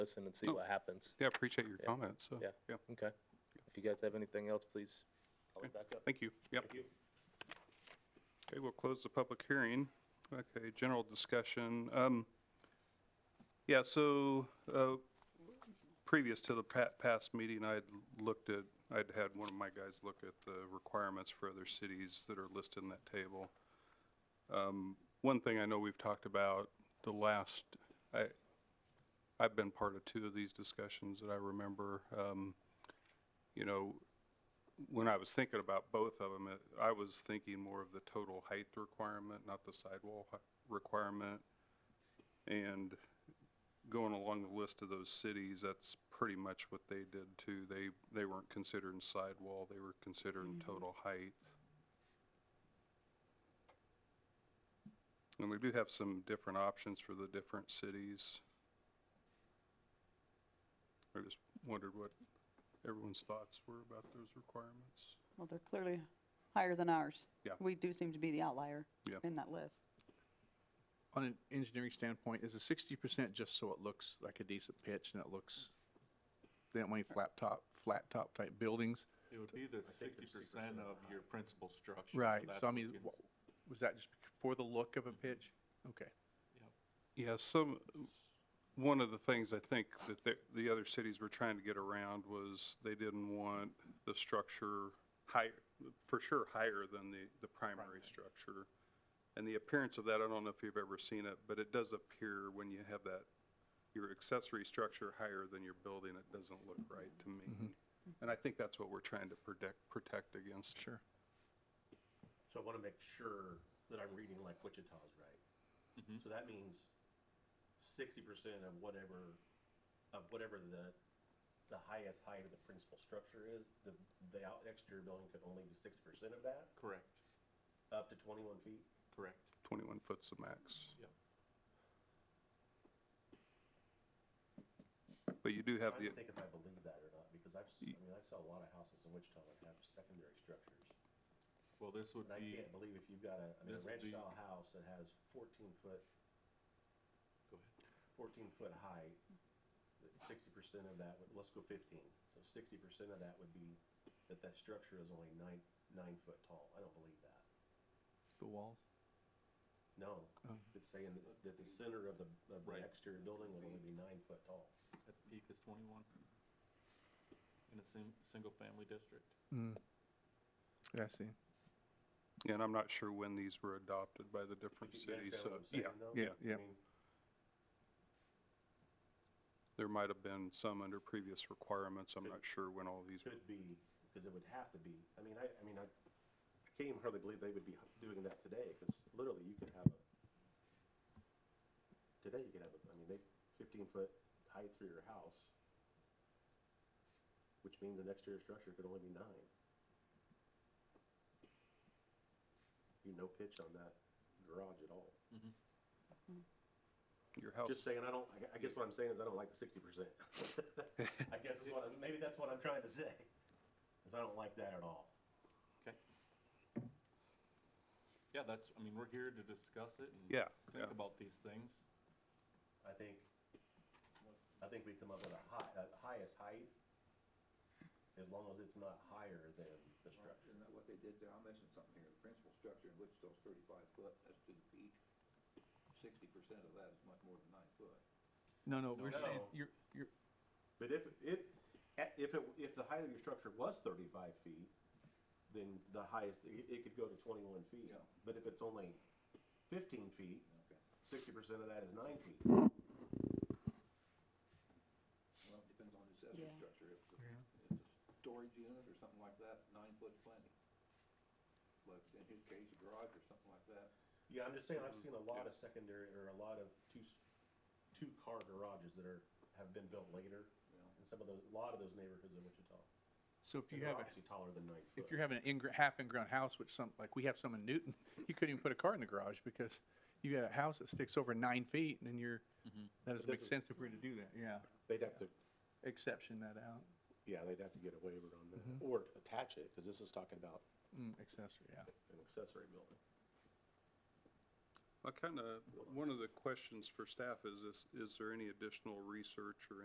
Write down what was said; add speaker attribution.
Speaker 1: listen and see
Speaker 2: Oh.
Speaker 1: what happens.
Speaker 2: Yeah, appreciate your comments. so,
Speaker 1: Yeah.
Speaker 2: Yeah,
Speaker 1: Okay. If you guys have anything else, please. I'll back up.
Speaker 2: thank you. Yep.
Speaker 1: Thank you.
Speaker 2: Okay, we'll close the public hearing. Okay, general discussion. Um, yeah, so, uh, previous to the pa- past meeting, I'd looked at, I'd had one of my guys look at the requirements for other cities that are listed in that table. Um, one thing I know we've talked about, the last, I, I've been part of two of these discussions that I remember. Um, you know, when I was thinking about both of them, I was thinking more of the total height requirement, not the sidewall hi- requirement. And going along the list of those cities, that's pretty much what they did too. They, they weren't considering sidewall, they were considering total height. And we do have some different options for the different cities. I just wondered what everyone's thoughts were about those requirements.
Speaker 3: Well, they're clearly higher than ours.
Speaker 2: Yeah.
Speaker 3: We do seem to be the outlier
Speaker 2: Yeah.
Speaker 3: in that list.
Speaker 4: on an engineering standpoint, is a sixty percent just so it looks like a decent pitch and it looks, they don't want any flat top, flat top type buildings?
Speaker 5: It would be the sixty percent of your principal structure.
Speaker 4: Right,
Speaker 5: That's
Speaker 4: so I
Speaker 5: what
Speaker 4: mean,
Speaker 5: we can-
Speaker 4: wha- was that just for the look of a pitch? Okay.
Speaker 2: Yeah, some, one of the things I think that the, the other cities were trying to get around was they didn't want the structure higher, for sure higher than the, the primary structure. And the appearance of that, I don't know if you've ever seen it, but it does appear when you have that, your accessory structure higher than your building, it doesn't look right to me. And I think that's what we're trying to protect, protect against.
Speaker 4: Sure.
Speaker 6: So I want to make sure that I'm reading like Wichita's right.
Speaker 5: Mm-hmm.
Speaker 6: So that means sixty percent of whatever, of whatever the, the highest height of the principal structure is, the, the out- exterior building could only be sixty percent of that,
Speaker 5: Correct,
Speaker 6: up to twenty-one feet?
Speaker 5: correct.
Speaker 2: Twenty-one foot's the max. But you do have
Speaker 6: Trying
Speaker 2: the.
Speaker 6: to think if I believe that or not, because I've, s- I mean, I saw a lot of houses in Wichita that have secondary structures.
Speaker 5: Well, this would
Speaker 6: And I
Speaker 5: be,
Speaker 6: can't believe if you've got a, I mean, a
Speaker 5: This would
Speaker 6: ranch
Speaker 5: be-
Speaker 6: style house that has fourteen foot,
Speaker 5: go ahead,
Speaker 6: fourteen foot height, sixty percent of that, would let's go fifteen. So sixty percent of that would be that that structure is only nine, nine foot tall. I don't believe that.
Speaker 4: The walls?
Speaker 6: No,
Speaker 4: Oh.
Speaker 6: it's saying that, that the center of the, of the
Speaker 5: Right.
Speaker 6: exterior building would only be nine foot tall.
Speaker 5: at the peak is twenty-one in a sim, single-family district.
Speaker 4: Mm. Yeah, I see.
Speaker 2: And I'm not sure when these were adopted by the different
Speaker 6: You- you
Speaker 2: cities,
Speaker 6: understand
Speaker 2: so,
Speaker 6: what I'm
Speaker 2: yeah,
Speaker 6: saying, though?
Speaker 4: yeah, yeah.
Speaker 6: I mean,
Speaker 2: there might have been some under previous requirements, I'm not sure when all these were.
Speaker 6: could be, because it would have to be, I mean, I, I mean, I, I can't even hardly believe they would be doing that today, because literally you could have a, today you could have, a I mean, they, fifteen foot height through your house, which means an exterior structure could only be nine. You no pitch on that garage at all.
Speaker 2: Your house,
Speaker 6: Just saying, I don't, I gue- I guess what I'm saying is I don't like the sixty percent. I guess is what, I'm- maybe that's what I'm trying to say, is I don't like that at all.
Speaker 5: Okay. Yeah, that's, I mean, we're here to discuss it and
Speaker 2: Yeah, yeah.
Speaker 5: think about these things.
Speaker 6: I think, I think we come up with a high, a highest height, as long as it's not higher than the structure.
Speaker 7: Isn't that what they did there? I mentioned something here, the principal structure in Wichita's thirty-five foot, that's to the peak. Sixty percent of that is much more than nine foot.
Speaker 4: No, no, we're saying,
Speaker 6: No.
Speaker 4: you're, you're,
Speaker 6: But if, if, if it, if the height of your structure was thirty-five feet, then the highest, it, it could go to twenty-one feet.
Speaker 7: Yeah.
Speaker 6: But if it's only fifteen feet,
Speaker 7: Okay.
Speaker 6: sixty percent of that is nine feet.
Speaker 7: Well, it depends on the accessory
Speaker 3: Yeah.
Speaker 7: structure. If it's,
Speaker 4: Yeah.
Speaker 7: if it's a storage unit or something like that, nine foot's plenty. But in his case, a garage or something like that,
Speaker 6: Yeah, I'm just saying, I've seen a lot of secondary, or a lot of two, s- two-car garages that are, have been built later,
Speaker 7: you know,
Speaker 6: in some of those, a lot of those neighborhoods in Wichita.
Speaker 4: so if you
Speaker 6: And they're
Speaker 4: have, a-
Speaker 6: Obviously taller than nine foot.
Speaker 4: if you're having an in, half in-ground house, which some, like we have some in Newton, you couldn't even put a car in the garage because you got a house that sticks over nine feet and then you're, Mm-hmm. that doesn't make sense
Speaker 6: doesn't-
Speaker 4: if we we're to do that, yeah.
Speaker 6: They'd have to,
Speaker 4: Exception that out,
Speaker 6: yeah, they'd have to get a waiver on that,
Speaker 4: Mm-hmm.
Speaker 6: or attach it, because this is talking about
Speaker 4: mm, accessory, yeah.
Speaker 6: an accessory building.
Speaker 2: I kinda, one of the questions for staff is, is, is there any additional research or